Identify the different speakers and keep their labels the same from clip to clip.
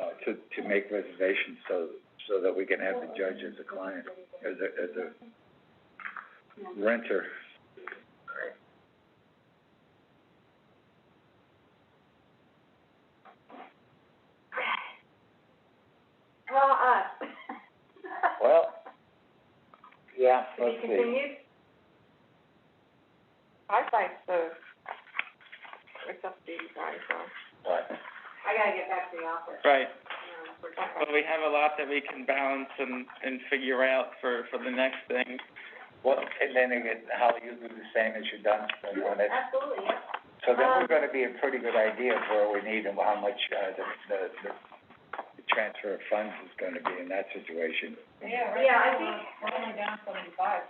Speaker 1: uh, to, to make reservations so, so that we can have the judge as a client, as a, as a renter.
Speaker 2: Draw
Speaker 3: uh,
Speaker 2: us.
Speaker 1: Well, yeah,
Speaker 2: To be continued?
Speaker 3: I think so. It's up to you guys, though.
Speaker 2: I gotta get back to the office,
Speaker 4: Right,
Speaker 2: um, for
Speaker 4: but we have a lot that we can balance and, and figure out for, for the next thing.
Speaker 1: Well, and then again, Holly, you do the same as you've done, so you wanna-
Speaker 2: Absolutely, yeah.
Speaker 1: so then we're gonna be a pretty good idea of where we need and how much, uh, the, the, the the transfer of funds is gonna be in that situation.
Speaker 3: Yeah,
Speaker 2: right Yeah, I now think-
Speaker 3: we're only down seventy-five.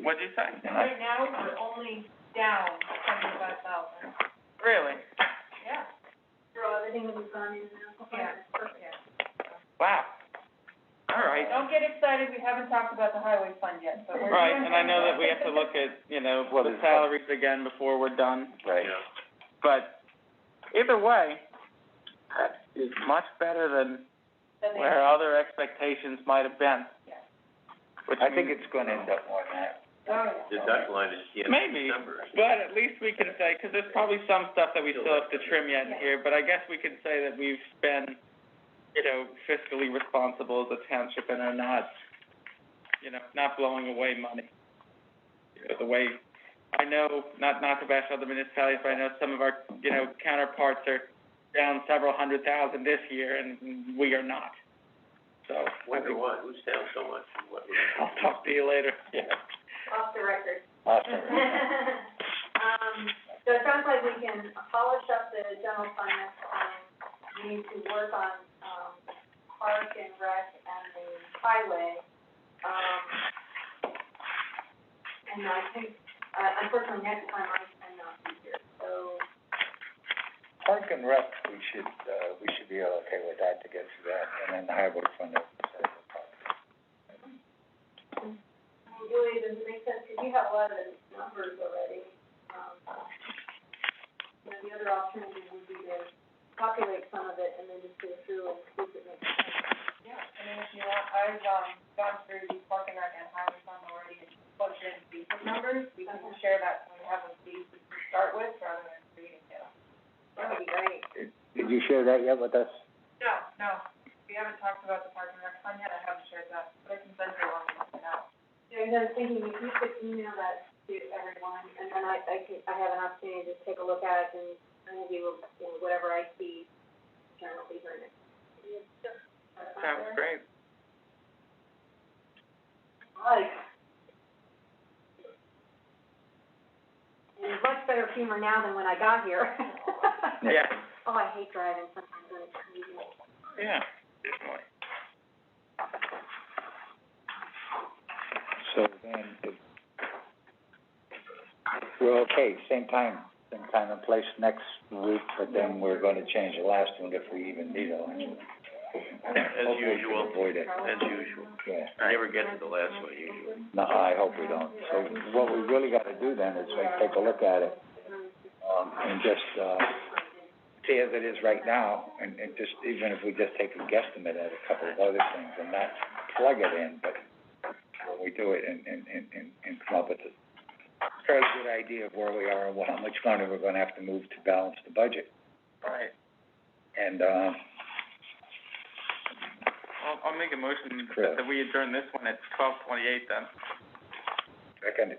Speaker 4: What'd you say?
Speaker 3: now, we're only down seventy-five thousand.
Speaker 4: Really?
Speaker 3: Yeah.
Speaker 2: Draw everything that we've gone in now.
Speaker 3: Yeah.
Speaker 4: Wow. All right.
Speaker 3: Don't get excited, we haven't talked about the highway fund yet, but we're.
Speaker 4: Right, and I know that we have to look at, you know,
Speaker 1: What
Speaker 4: the
Speaker 1: is-
Speaker 4: salaries again before we're done,
Speaker 1: Right.
Speaker 4: but either way, that is much better than
Speaker 3: Then they-
Speaker 4: where other expectations might have been.
Speaker 3: Yeah.
Speaker 4: Which
Speaker 1: I think
Speaker 4: means-
Speaker 1: it's gonna end up more than that.
Speaker 3: Oh, yeah.
Speaker 5: The duck line is the end of
Speaker 4: Maybe.
Speaker 5: December.
Speaker 4: But at least we can say, 'cause there's probably some stuff that we still have to trim yet here, but I guess we could say that we've been, you know, fiscally responsible as a township and are not, you know, not blowing away money. You know, The way, I know, not, not to bash other municipalities, but I know some of our, you know, counterparts are down several hundred thousand this year and we are not. So, I
Speaker 5: Wonder
Speaker 4: think,
Speaker 5: why, who's down so much and what?
Speaker 4: I'll talk to you later.
Speaker 2: Off the record.
Speaker 1: Awesome.
Speaker 2: Um, so it sounds like we can polish up the general fund next time. We need to work on, um, park and rec and the highway, um, and I think, uh, unfortunately, next time I cannot be here, so,
Speaker 1: Park and Rec, we should, uh, we should be okay with that to get through that, and then the highway fund is, uh,
Speaker 2: I mean, Julie, does it make sense, because you have a lot of the numbers already, um, you know, the other alternative would be to populate some of it and then just go through and see if it makes sense.
Speaker 3: Yeah, I mean, if you want, I've, um, gone through the park and rec and highway fund already and plugged in these numbers. We can share that when we have a fee to start with rather than creating it.
Speaker 2: That would be great.
Speaker 1: Did you share that yet with us?
Speaker 3: No, no, we haven't talked about the park and rec fund yet, I haven't shared that, but I can send you along with it now.
Speaker 2: Yeah, because I was thinking, if you could email that to everyone, and then I, I could, I have an opportunity to take a look at it and, and maybe, you know, whatever I see, Karen will be hearing it.
Speaker 4: Sounds great.
Speaker 2: Right. And much better humor now than when I got here.
Speaker 4: Yeah,
Speaker 2: Oh, I hate driving sometimes when it's crazy.
Speaker 4: yeah, definitely.
Speaker 1: So then, it, we're okay, same time, same time and place next week, but then we're gonna change the last one if we even need a last one.
Speaker 5: As usual,
Speaker 1: Hopefully we can avoid it,
Speaker 5: as usual.
Speaker 1: yeah.
Speaker 5: I never get to the last one usually.
Speaker 1: No, I hope we don't. So what we really gotta do then is like take a look at it, um, and just, uh, see as it is right now, and, and just, even if we just take a guesstimate at a couple of other things and not plug it in, but when we do it and, and, and, and- and come up with a fairly good idea of where we are and what, how much money we're gonna have to move to balance the budget.
Speaker 4: Right.
Speaker 1: And, uh,
Speaker 4: I'll, I'll make a motion
Speaker 1: Sure.
Speaker 4: that we adjourn this one at twelve twenty-eight then.
Speaker 1: second,